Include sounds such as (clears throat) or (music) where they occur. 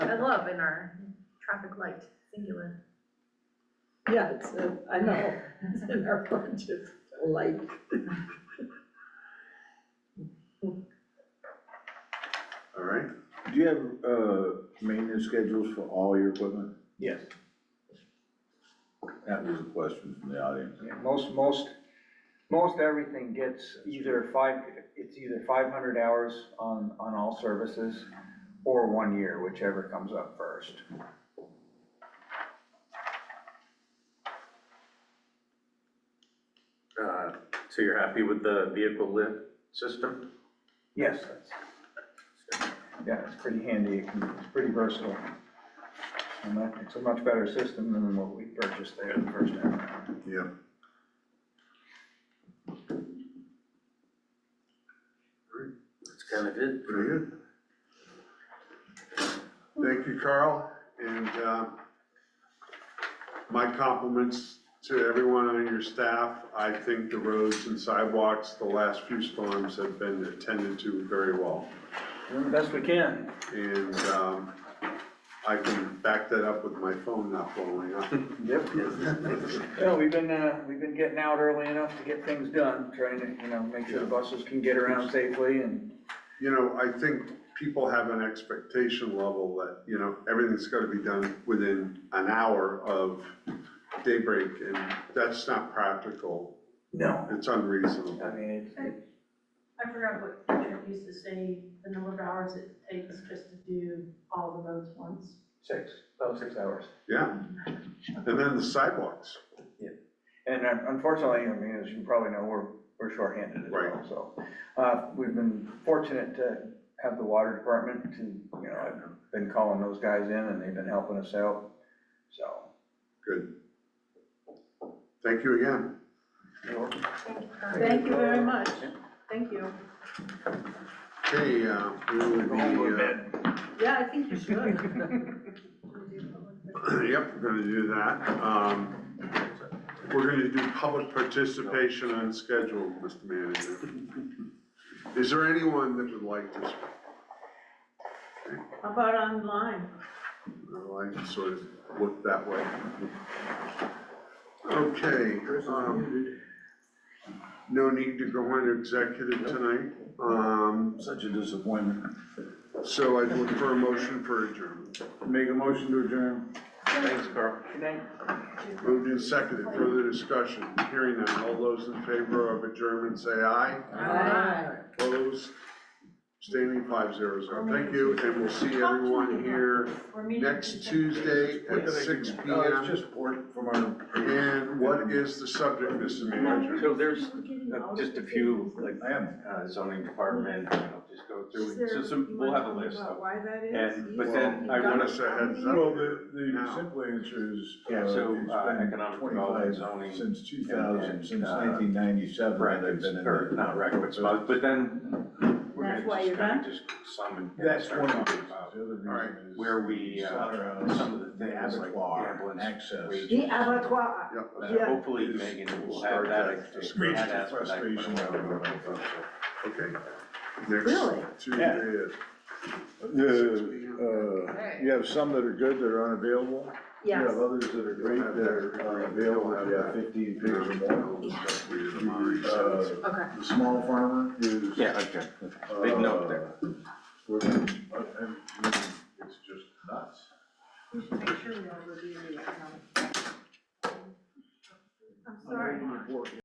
love in our traffic light, singular. Yeah, it's, uh, I know, it's (laughs) in our budget, like. all right? Do you have, uh, maintenance schedules for all your equipment? Yes. That was a question from the audience. Yeah, Most, most, most everything gets either five, it's either five hundred hours on, on all services or one year, whichever comes up first. Uh, So you're happy with the vehicle lift system? Yes, that's, yeah, it's pretty handy, it can- it's pretty versatile. And that, it's a much better system than what we purchased there the first time around. Yeah. That's kind of it. Very good. Thank you, Carl. And uh, my compliments to everyone on your staff. I think the roads and sidewalks the last few storms have been attended to very well. Doing the best we can. And um, I can back that up with my phone not blowing up. Yep. Yeah, we've been, uh, we've been getting out early enough to get things done, trying to, you know, make sure the buses can get around safely and, You know, I think people have an expectation level that, you know, everything's gotta be done within an hour of daybreak, and that's not practical. no, It's unreasonable. I mean, it's, it- I forgot what Patrick used to say, the number of hours it takes just to do all the roads once. six, about six hours. Yeah, and then the sidewalks, And un- unfortunately, I mean, as you probably know, we're, we're shorthanded as well, Right. so. Uh, we've been fortunate to have the water department to, you know, I've been calling those guys in and they've been helping us out, so. good. Thank you again. you know, Thank you very much, thank you. Okay, uh, we will go home, go to be, uh, bed. Yeah, I think you should. (laughs) uh, (clears throat) yep, we're gonna do that. Um, We're gonna do public participation on schedule, Mr. Manager. Is there anyone that would like to speak? How about online? Well, I sort of looked that way. Okay, um, no need to go into executive tonight, um, Such a disappointment. so I'd look for a motion for adjournment. Make a motion to adjourn. Thanks, Carl. Good night. Moved and seconded, further discussion, hearing none, all those in favor of adjournment say aye. Opposed, standing five zero zero, thank you, and we'll see everyone here We're meeting next Tuesday. Tuesday at six P No, it's M. just port from our, And what is the subject, Mr. Manager? So there's uh, just a few, like, I am. uh, zoning department, and I'll just go Is through, there- it. so some, you we'll wanna have a talk list about of. Why that is? And, but He's- then I he's wanna got say it. heads up. Well, the, the Now. simple answer is, uh, Yeah, it's so, uh, been economic development, twenty-five zoning, since two thousand, and, since uh, nineteen ninety-seven, that I've Brackets, been in or not brackets, but, but then we're That's gonna why just you're kind done? of just summon. That's start one of the talking reasons. The about other reason Alright, is Where we, uh, slaughterhouse, some of the the things like abattoir, ambulance access. wages. The abattoir. Yep. Yeah. hopefully Megan will have that, Reached that the aspect. frustration level. Okay. Really? Next Tuesday at six The, P M. uh, you have some that are good, that are unavailable. You Yes, have others that are great, that are unavailable, you have fifteen pigs or more. Uh, Uh, Okay. The small farmer is. Yeah, okay. Big note there. uh, We're, uh, and, it's just nuts. We should make sure we are reviewing the economic. I'm sorry. Very important.